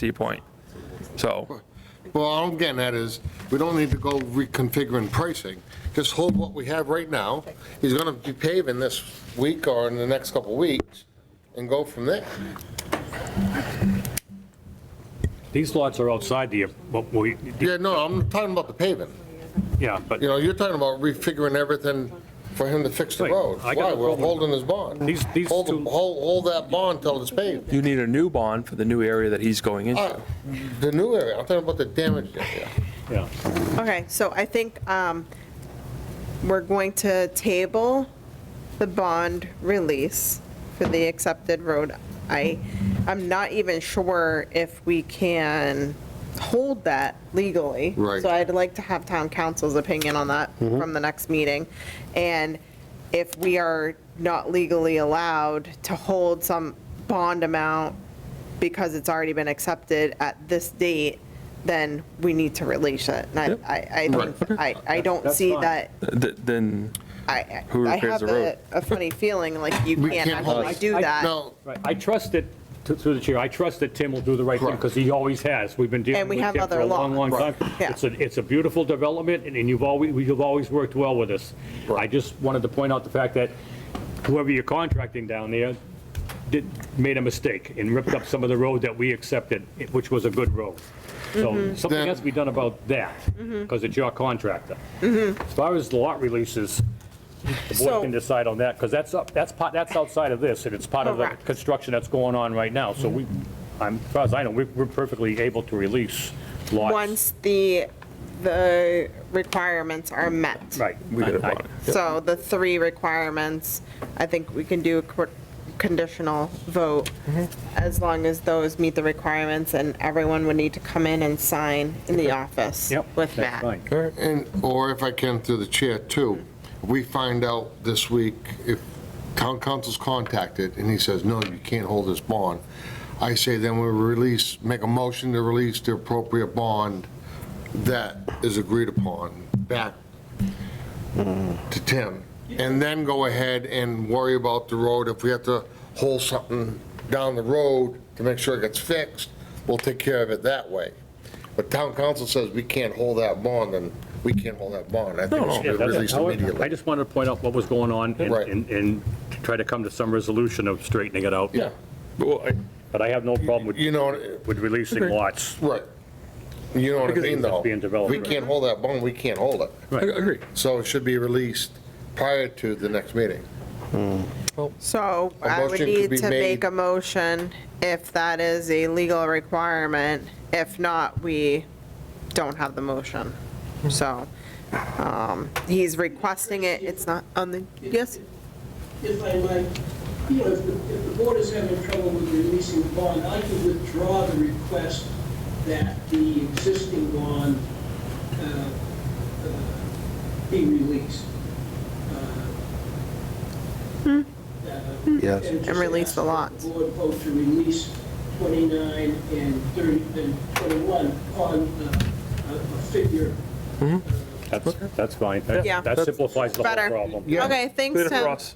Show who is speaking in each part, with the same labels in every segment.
Speaker 1: to your point. So,
Speaker 2: Well, all I'm getting at is, we don't need to go reconfiguring pricing. Just hold what we have right now. He's gonna be paving this week or in the next couple of weeks, and go from there.
Speaker 3: These lots are outside the, what we,
Speaker 2: Yeah, no, I'm talking about the paving.
Speaker 3: yeah, but
Speaker 2: You know, you're talking about refiguring everything for him to fix the
Speaker 3: Right.
Speaker 2: road.
Speaker 3: I got
Speaker 2: Why,
Speaker 3: no
Speaker 2: we're
Speaker 3: problem.
Speaker 2: holding his bond.
Speaker 3: These- these
Speaker 2: Hold, the-
Speaker 3: two-
Speaker 2: hold hold that bond till it's paved.
Speaker 1: you need a new bond for the new area that he's going
Speaker 2: Uh,
Speaker 1: into.
Speaker 2: The new area, I'm talking about the damaged area.
Speaker 3: yeah,
Speaker 4: Okay, so I think um, we're going to table the bond release for the accepted road. I, I'm not even sure if we can hold that legally.
Speaker 2: Right.
Speaker 4: So I'd like to have town council's opinion on that from the next meeting. And if we are not legally allowed to hold some bond amount because it's already been accepted at this date, then we need to release it. And I-
Speaker 1: Yep.
Speaker 4: I, I, think- I, I don't
Speaker 3: That's
Speaker 4: see
Speaker 3: fine.
Speaker 4: that,
Speaker 1: Th- Then,
Speaker 4: I,
Speaker 1: Who
Speaker 4: I
Speaker 1: repairs
Speaker 4: have
Speaker 1: the road?
Speaker 4: a, a funny feeling like you
Speaker 2: We
Speaker 4: can't
Speaker 2: can't hold
Speaker 4: actually
Speaker 2: it.
Speaker 4: do
Speaker 3: I-
Speaker 4: that.
Speaker 2: No,
Speaker 3: right, I trust that, th- through the chair, I trust that Tim will do the right thing, because he always has, we've been dealing
Speaker 4: And we
Speaker 3: with
Speaker 4: have
Speaker 3: Tim for
Speaker 4: other
Speaker 3: a long, long
Speaker 4: lots.
Speaker 3: time.
Speaker 4: Yeah.
Speaker 3: It's a, it's a beautiful development, and and you've always, you've always worked well with us. I just wanted to point out the fact that whoever you're contracting down there did, made a mistake and ripped up some of the road that we accepted, which was a good road.
Speaker 4: Mm-hmm.
Speaker 3: So something
Speaker 2: Then-
Speaker 3: has to be done about that, because it's your contractor. As far as the lot releases, the
Speaker 4: Mm-hmm. So-
Speaker 3: board can decide on that, because that's, up- that's part, that's outside of this, and it's part of the
Speaker 4: Correct.
Speaker 3: construction that's going on right now, so we, I'm, as far as I know, we- we're perfectly able to release lots.
Speaker 4: Once the, the requirements are met.
Speaker 3: Right.
Speaker 1: we could have
Speaker 3: I- I-
Speaker 1: bought it.
Speaker 4: So the three requirements, I think we can do a co- conditional vote
Speaker 3: Mm-hmm.
Speaker 4: as long as those meet the requirements and everyone would need to come in and sign in the office
Speaker 3: Yep.
Speaker 4: with
Speaker 3: that's
Speaker 4: that.
Speaker 3: fine.
Speaker 2: And, or if I can through the chair too, we find out this week if town council's contacted and he says, no, you can't hold this bond. I say then we release, make a motion to release the appropriate bond that is agreed upon back to Tim. And then go ahead and worry about the road. If we have to hold something down the road to make sure it gets fixed, we'll take care of it that way. But town council says we can't hold that bond, and we can't hold that bond. I think it should
Speaker 3: Yeah,
Speaker 2: be
Speaker 3: that's-
Speaker 2: released
Speaker 3: I
Speaker 2: immediately.
Speaker 3: just wanted to point out what was going on and-
Speaker 2: Right.
Speaker 3: and, and to try to come to some resolution of straightening it out.
Speaker 2: Yeah,
Speaker 1: Well, I-
Speaker 3: But I have no problem with,
Speaker 2: you know,
Speaker 3: with releasing lots.
Speaker 2: right. You know what I
Speaker 3: Because
Speaker 2: mean,
Speaker 3: it's
Speaker 2: though?
Speaker 3: being developed,
Speaker 2: We
Speaker 3: right.
Speaker 2: can't hold that bond, we can't hold it.
Speaker 1: I agree.
Speaker 2: So it should be released prior to the next meeting.
Speaker 4: So
Speaker 2: A
Speaker 4: I would
Speaker 2: motion could
Speaker 4: need
Speaker 2: be
Speaker 4: to make
Speaker 2: made.
Speaker 4: a motion if that is a legal requirement. If not, we don't have the motion. So um, he's requesting it, it's not on the, yes?
Speaker 5: If I might, you know, if the, if the board is having trouble with releasing the bond, I could withdraw the request that the existing bond uh, uh, be released. Uh, Yes.
Speaker 4: Hmm. And release the lots.
Speaker 5: Board vote to release 29 and 30, and 21 on uh, a a figure.
Speaker 3: That's, that's fine. That-
Speaker 4: Yeah.
Speaker 3: That simplifies the whole
Speaker 4: Better.
Speaker 3: problem.
Speaker 4: Okay, thanks,
Speaker 1: Clear for
Speaker 4: Tim.
Speaker 1: us.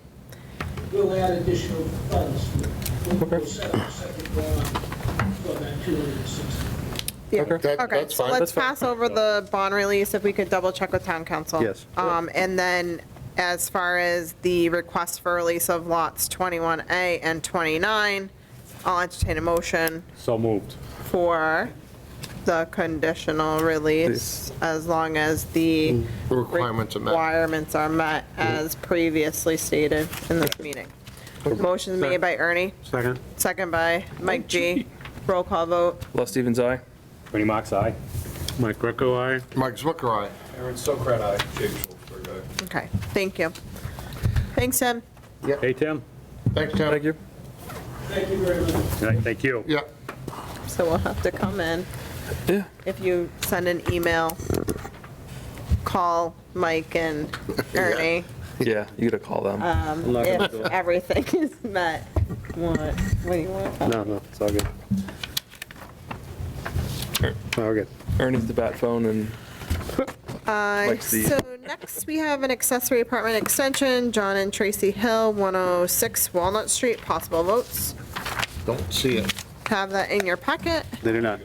Speaker 5: We'll add additional funds. We'll- We'll set up a second bond for that 260.
Speaker 4: Yeah.
Speaker 2: That-
Speaker 4: Okay,
Speaker 2: that's
Speaker 4: so
Speaker 2: fine.
Speaker 4: let's pass over the bond release if we could double check with town council.
Speaker 6: Yes.
Speaker 4: Um, and then as far as the request for release of lots 21A and 29, I'll entertain a motion
Speaker 3: So moved.
Speaker 4: for the conditional release as long as the
Speaker 2: The requirements are met.
Speaker 4: requirements are met as previously stated in this meeting. Motion made by Ernie,
Speaker 6: Second.
Speaker 4: second by Mike G. Roll call vote.
Speaker 1: Les Stevens, aye.
Speaker 3: Ernie Mac's aye.
Speaker 6: Mike Greco, aye.
Speaker 2: Mike Zwicker, aye.
Speaker 7: Aaron Sokrat, aye. Jake Schultzberg, aye.
Speaker 4: Okay, thank you. Thanks, Tim.
Speaker 3: Hey, Tim?
Speaker 2: Thanks, Tim.
Speaker 1: Thank you.
Speaker 5: Thank you very much.
Speaker 3: All right, Thank you.
Speaker 2: Yeah,
Speaker 4: So we'll have to come in.
Speaker 1: Yeah.
Speaker 4: If you send an email, call Mike and Ernie.
Speaker 1: Yeah, you gotta call them.
Speaker 4: If everything is met, what, what do you want?
Speaker 6: No, no, it's all good. All good.
Speaker 1: Ernie's the bat phone and
Speaker 4: Uh,
Speaker 1: Mike's the-
Speaker 4: So next, we have an accessory apartment extension, John oh and Tracy Hill, 106 Walnut Street, possible votes.
Speaker 2: don't see it.
Speaker 8: have that in your packet.
Speaker 4: They do not.